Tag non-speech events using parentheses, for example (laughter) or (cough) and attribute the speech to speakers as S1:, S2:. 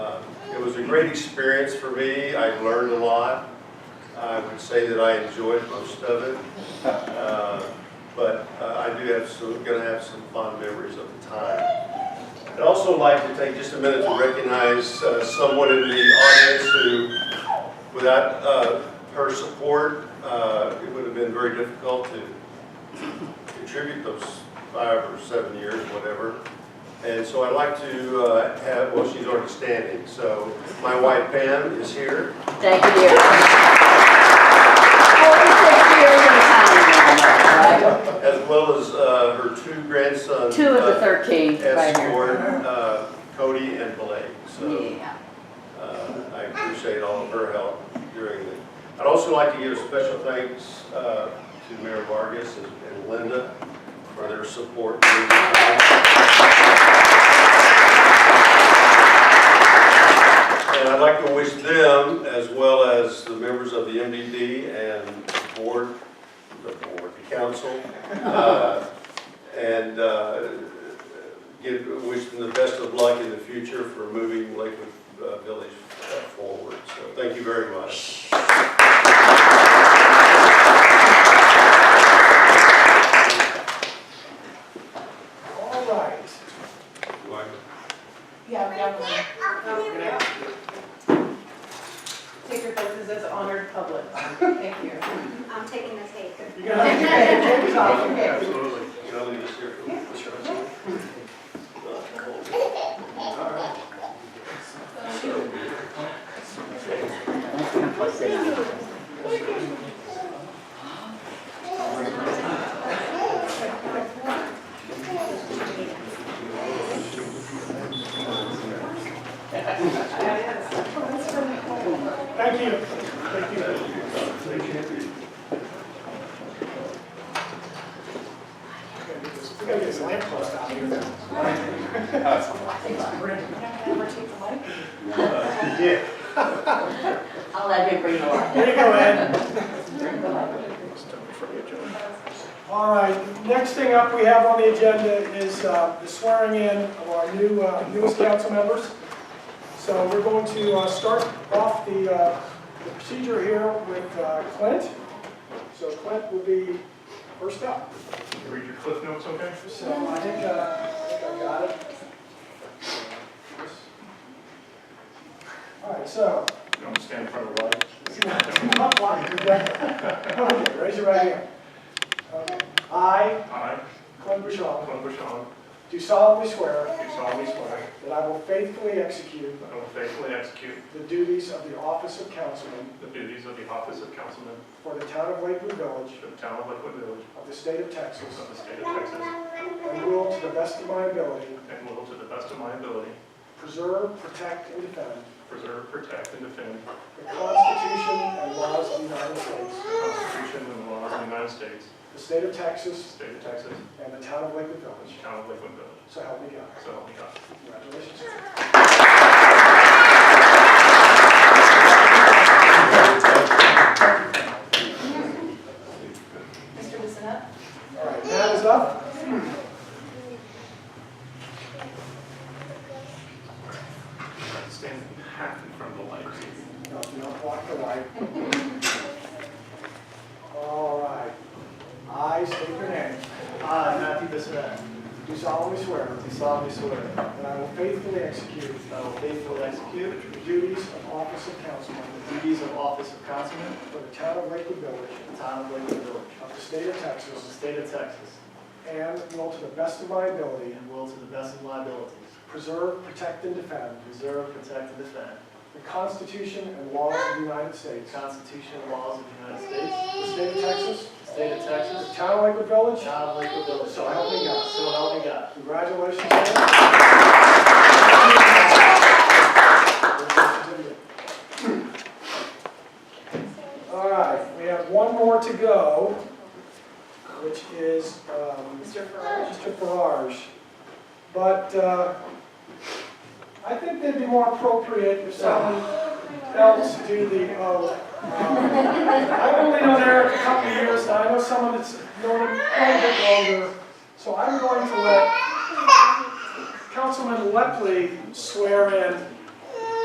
S1: Uh, great experience for me. I learned a lot. I would say that I enjoyed most of it. Uh, But uh, I do have some, gonna have some fond memories of the time. I'd also like to take just a minute to recognize uh, someone in the audience who, without uh, her support, uh, it would have been very difficult to contribute those five or seven years, whatever. And so I'd like to uh, have, well, she's already standing, so my wife Pam is here.
S2: Thank you. Forty-six years in town,
S1: as well as uh, her two grandsons.
S2: Two of the
S1: uh,
S2: thirteen, right
S1: Escort,
S2: here.
S1: uh, Cody and Blake. So
S2: Yeah.
S1: uh, I appreciate all of her help during the, I'd also like to give special thanks uh, to Mayor Vargas and- and Linda for their support. during the time. And I'd like to wish them, as well as the members of the MDD and the board, the board, the council, uh, and uh, give, wish them the best of luck in the future for moving Lakewood uh, Village uh, forward. So thank you very much.
S3: All right.
S4: Yeah, we got one. Take your places as honored public. (laughs) Thank you.
S5: I'm taking the tape.
S3: You're gonna have to take your cape off.
S1: Absolutely. Can I leave this here for Mr. Russell?
S3: All right. Thank you. Thank you. We gotta get this lamp post out here.
S1: Yeah.
S2: I'll let you bring the light.
S3: There you go, Ed.
S2: Bring the light.
S3: All right, next thing up we have on the agenda is uh, the swearing in of our new, uh, newest council members. So we're going to uh, start off the uh, the procedure here with uh, Clint. So Clint will be first up.
S6: Can you Read your cliff notes, okay?
S3: So I think uh, I think I got it. All right, so
S6: Don't stand in front of the light.
S3: Not one, you're right. Okay, Raise your right hand. Okay. I,
S6: I,
S3: Clint Bouchon,
S6: Clint Bushong,
S3: do solemnly swear
S6: do solemnly swear
S3: that I will faithfully execute
S6: that I will faithfully execute
S3: the duties of the office of councilman
S6: the duties of the office of councilman
S3: for the town of Lakewood Village
S6: for the town of Lakewood Village
S3: of the state of Texas
S6: of the state of Texas
S3: and will, to the best of my ability,
S6: and will, to the best of my ability,
S3: preserve, protect, and defend
S6: preserve, protect, and defend
S3: the Constitution and laws of the United States,
S6: the Constitution and the laws of the United States,
S3: the state of
S6: the
S3: Texas,
S6: state of Texas,
S3: and the town of Lakewood
S6: and
S3: Village.
S6: the town of Lakewood Village.
S3: So help me God.
S6: So help me God.
S3: Congratulations.
S4: Mr. Bissonnette?
S3: All right, that is up.
S6: Stand half in front of the light.
S3: No, you don't block the light. All right. I state your name.
S7: I, Matthew Bissonette,
S3: Do solemnly swear
S7: do solemnly swear that
S3: that I will faithfully execute
S7: I will faithfully execute
S3: the duties of office of councilman
S7: the duties of office of councilman
S3: for the town of Lakewood Village
S7: in the town of Lakewood Village
S3: of the state of
S7: of the
S3: Texas
S7: state of Texas
S3: and will to the best of my ability
S7: and will to the best of my abilities
S3: preserve, protect, and defend
S7: preserve, protect, and defend
S3: the Constitution and laws of the United
S7: the
S3: States,
S7: Constitution and laws of the United States,
S3: the state of Texas,
S7: the state of
S3: the
S7: Texas,
S3: town of Lakewood
S7: the
S3: Village.
S7: town of Lakewood Village.
S3: So help me God.
S7: So help me God.
S3: Congratulations, Sam. All right, we have one more to go, which is um,
S4: Mr. Farage?
S3: Mr. Farage. But uh, I think they'd be more appropriate if someone else do the oath. Um, I've only known Eric a couple of years, and I know someone that's known him quite a bit longer. So I'm going to let Councilman Lepley swear in